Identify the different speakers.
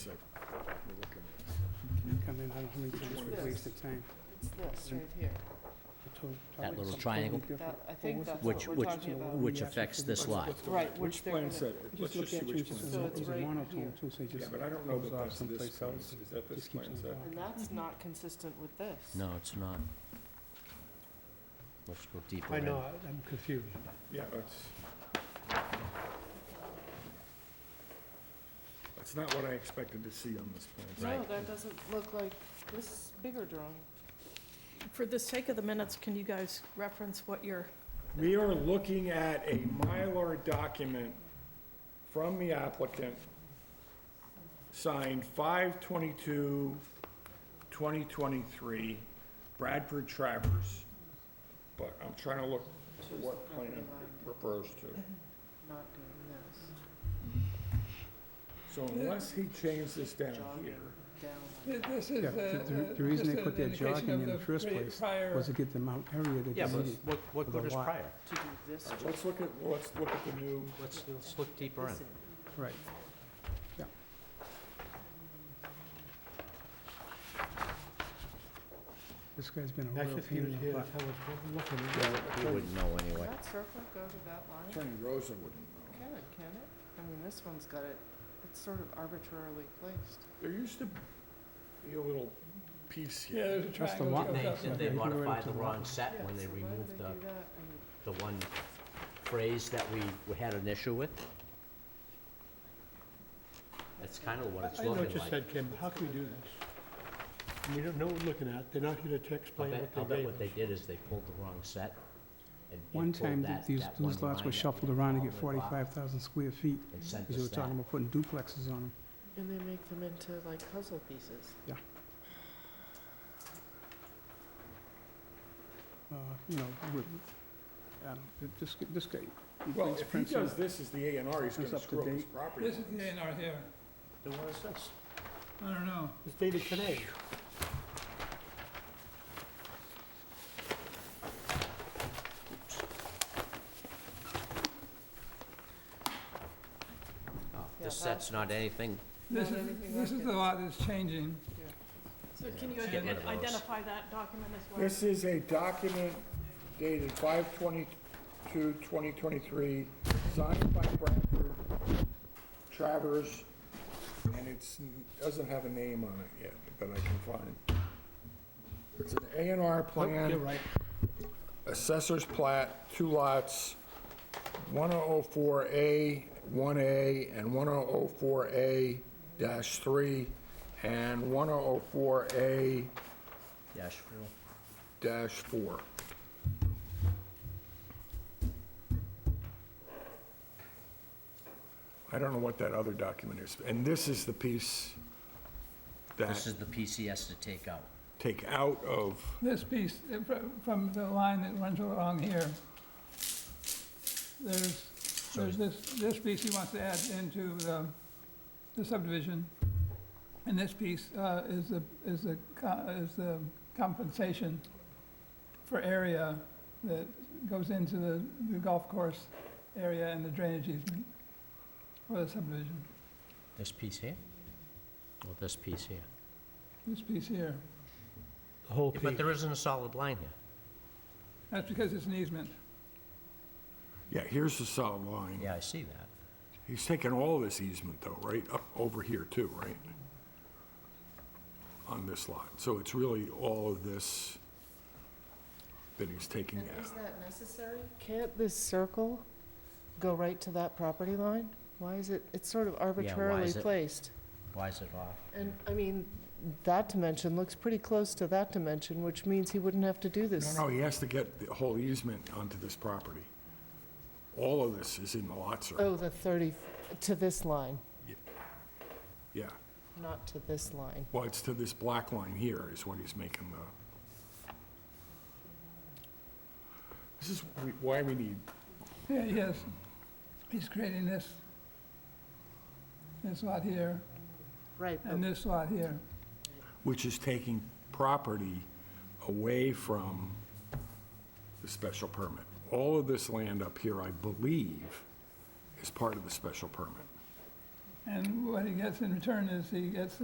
Speaker 1: then I don't know how many times we've wasted time.
Speaker 2: It's this right here.
Speaker 1: The to-
Speaker 3: That
Speaker 1: totally-
Speaker 3: little
Speaker 1: something
Speaker 3: triangle?
Speaker 1: totally different.
Speaker 2: That, I think
Speaker 1: was it?
Speaker 2: that's what
Speaker 3: Which-
Speaker 2: we're
Speaker 3: which-
Speaker 2: talking
Speaker 1: So what we
Speaker 2: about.
Speaker 3: which
Speaker 1: actually
Speaker 3: affects
Speaker 1: think
Speaker 3: this
Speaker 1: is what's
Speaker 3: lot.
Speaker 1: going on.
Speaker 2: Right, which
Speaker 4: Which
Speaker 2: they're
Speaker 4: plan
Speaker 2: gonna,
Speaker 4: set?
Speaker 1: You
Speaker 4: Let's
Speaker 1: Just
Speaker 4: just
Speaker 1: look
Speaker 4: see
Speaker 1: at you,
Speaker 4: which
Speaker 1: it's
Speaker 4: plan
Speaker 1: just
Speaker 2: So
Speaker 1: a-
Speaker 4: set.
Speaker 2: it's
Speaker 1: it's a
Speaker 2: right
Speaker 1: monotone
Speaker 2: here.
Speaker 1: too, so it
Speaker 4: Yeah,
Speaker 1: just
Speaker 4: but I don't know
Speaker 1: goes
Speaker 4: that
Speaker 1: off
Speaker 4: that's this
Speaker 1: someplace
Speaker 4: plan
Speaker 1: else.
Speaker 4: set. Is that this
Speaker 1: Just keeps
Speaker 4: plan
Speaker 1: on
Speaker 4: set?
Speaker 1: going.
Speaker 2: and that's not consistent with this.
Speaker 3: No, it's not. Let's go deeper
Speaker 5: I
Speaker 3: in.
Speaker 5: know, I'm confused.
Speaker 4: Yeah, that's... That's not what I expected to see on this plan.
Speaker 2: No,
Speaker 3: Right.
Speaker 2: that doesn't look like this bigger drawing.
Speaker 6: For the sake of the minutes, can you guys reference what you're,
Speaker 4: We are looking at a Mylar document from the applicant, signed 5/22/2023, Bradford Travers. But I'm trying to look
Speaker 2: Choose the
Speaker 4: what plan
Speaker 2: property
Speaker 4: it
Speaker 2: line,
Speaker 4: refers to.
Speaker 2: Not doing this.
Speaker 4: So unless he changed this down
Speaker 2: Jogging
Speaker 4: here,
Speaker 2: down. like
Speaker 5: Th-
Speaker 2: that.
Speaker 5: This
Speaker 1: Yeah,
Speaker 5: is,
Speaker 1: the-
Speaker 5: uh,
Speaker 1: the-
Speaker 5: uh,
Speaker 1: the reason
Speaker 5: just
Speaker 1: they put
Speaker 5: an
Speaker 1: that
Speaker 5: indication
Speaker 1: jogging
Speaker 5: of
Speaker 1: in the first
Speaker 5: pri-
Speaker 1: place
Speaker 5: prior-
Speaker 1: Was to get the amount area that
Speaker 7: Yeah,
Speaker 1: they
Speaker 7: but
Speaker 1: needed.
Speaker 7: what, what
Speaker 1: for the
Speaker 7: good is
Speaker 1: lot.
Speaker 7: prior?
Speaker 2: To do this.
Speaker 4: All right, let's look at, let's look at the new,
Speaker 7: Let's, let's look deeper in.
Speaker 2: this in.
Speaker 1: Right. This guy's been a
Speaker 5: That's
Speaker 1: real
Speaker 5: just
Speaker 1: pain
Speaker 5: here,
Speaker 1: in the
Speaker 5: here,
Speaker 1: butt.
Speaker 5: that's how it's looking.
Speaker 3: We wouldn't know
Speaker 2: Can
Speaker 3: anyway.
Speaker 2: that circle go to that line?
Speaker 4: Attorney Rosa wouldn't know.
Speaker 2: Can it, can it? I mean, this one's got it, it's sort of arbitrarily placed.
Speaker 4: There used to be a little piece
Speaker 5: Yeah,
Speaker 4: here.
Speaker 5: there's a
Speaker 1: That's the
Speaker 5: triangle
Speaker 1: lot
Speaker 5: that goes
Speaker 1: line.
Speaker 3: They,
Speaker 5: up
Speaker 1: Yeah,
Speaker 3: did
Speaker 5: there.
Speaker 3: they
Speaker 1: they were
Speaker 3: modify
Speaker 1: to
Speaker 3: the
Speaker 1: the
Speaker 3: wrong
Speaker 1: left.
Speaker 3: set
Speaker 2: Yeah,
Speaker 3: when they
Speaker 2: so why do
Speaker 3: removed
Speaker 2: they
Speaker 3: the,
Speaker 2: do that? I mean,
Speaker 3: the one phrase that we, we had an issue with? That's kind of what it's
Speaker 5: I know what
Speaker 3: looking
Speaker 5: you
Speaker 3: like.
Speaker 5: said, Kim, how can we do this? We don't know what we're looking at, they're not gonna t-
Speaker 3: I'll
Speaker 5: explain
Speaker 3: bet, I'll
Speaker 5: what they
Speaker 3: bet
Speaker 5: gave
Speaker 3: what
Speaker 5: us.
Speaker 3: they did is they pulled the wrong set and-
Speaker 1: One
Speaker 3: and
Speaker 1: time, th-
Speaker 3: pulled that,
Speaker 1: these,
Speaker 3: that one
Speaker 1: these lots
Speaker 3: line
Speaker 1: were
Speaker 3: that
Speaker 1: shuffled
Speaker 3: we
Speaker 1: around to get
Speaker 3: called it off
Speaker 1: forty-five thousand square feet,
Speaker 3: And sent
Speaker 1: because they
Speaker 3: us
Speaker 1: were talking
Speaker 3: that.
Speaker 1: about putting duplexes on them.
Speaker 2: And they make them into like puzzle pieces.
Speaker 1: Uh, you know, with, I don't, it- this, g- this guy. he
Speaker 4: Well,
Speaker 1: thinks
Speaker 4: if he
Speaker 1: Prince is-
Speaker 4: does this as the A and R, he's
Speaker 1: It's
Speaker 4: gonna
Speaker 1: up to
Speaker 4: screw up his
Speaker 1: date.
Speaker 4: property.
Speaker 5: This is the A and R here,
Speaker 7: Then what is this?
Speaker 5: I don't know, it's dated today.
Speaker 3: Oh,
Speaker 2: Yeah,
Speaker 3: This
Speaker 2: that-
Speaker 3: set's not anything,
Speaker 2: This is- anything this like is the it.
Speaker 5: lot that's changing.
Speaker 6: so can you
Speaker 3: Let's get rid of those.
Speaker 6: identify that document as well?
Speaker 4: This is a document dated 5/22/2023, signed by Bradford Travers, and it's, doesn't have a name on it yet that I can find. It's an A and R
Speaker 5: Oh,
Speaker 4: plan.
Speaker 5: You're right,
Speaker 4: Assessor's plat, two lots, 1004A, 1A, and 1004A dash 3, and 1004A
Speaker 3: Dash.
Speaker 4: dash 4. I don't know what that other document is, and this is the piece
Speaker 3: This
Speaker 4: that
Speaker 3: is the PCS to take out.
Speaker 4: take out of,
Speaker 8: This piece, uh, fr- from the line that runs along here, there's, there's this, this piece he wants to add into the the subdivision, and this piece uh, is the, is the, co- is the compensation for area that goes into the the golf course area and the drainage easement for the subdivision,
Speaker 3: This piece here? Or this piece here?
Speaker 8: this piece here.
Speaker 5: the whole
Speaker 3: Yeah,
Speaker 5: piece.
Speaker 3: But there isn't a solid line here.
Speaker 8: That's because it's an easement.
Speaker 4: yeah, here's the solid line.
Speaker 3: Yeah, I see that.
Speaker 4: He's taking all this easement though, right, up over here too, right? On this lot, so it's really all of this that he's taking
Speaker 2: And is
Speaker 4: out.
Speaker 2: that necessary? Can't this circle go right to that property line? Why is it, it's sort of arbitrarily
Speaker 3: is it?
Speaker 2: placed.
Speaker 3: Why is it off?
Speaker 2: And, I mean, that dimension looks pretty close to that dimension, which means he wouldn't have to do this.
Speaker 4: No, no, he has to get the whole easement onto this property. All of this is in the lot circle,
Speaker 2: Oh, the 30, f- to this line,
Speaker 4: yeah.
Speaker 2: not to this line.
Speaker 4: Well, it's to this black line here is what he's making the... This is we- why we need,
Speaker 8: Yeah, yes. He's creating this, this lot here
Speaker 2: Right,
Speaker 8: and this lot here.
Speaker 4: which is taking property away from the special permit. All of this land up here, I believe, is part of the special permit.
Speaker 8: And what he gets in return is he gets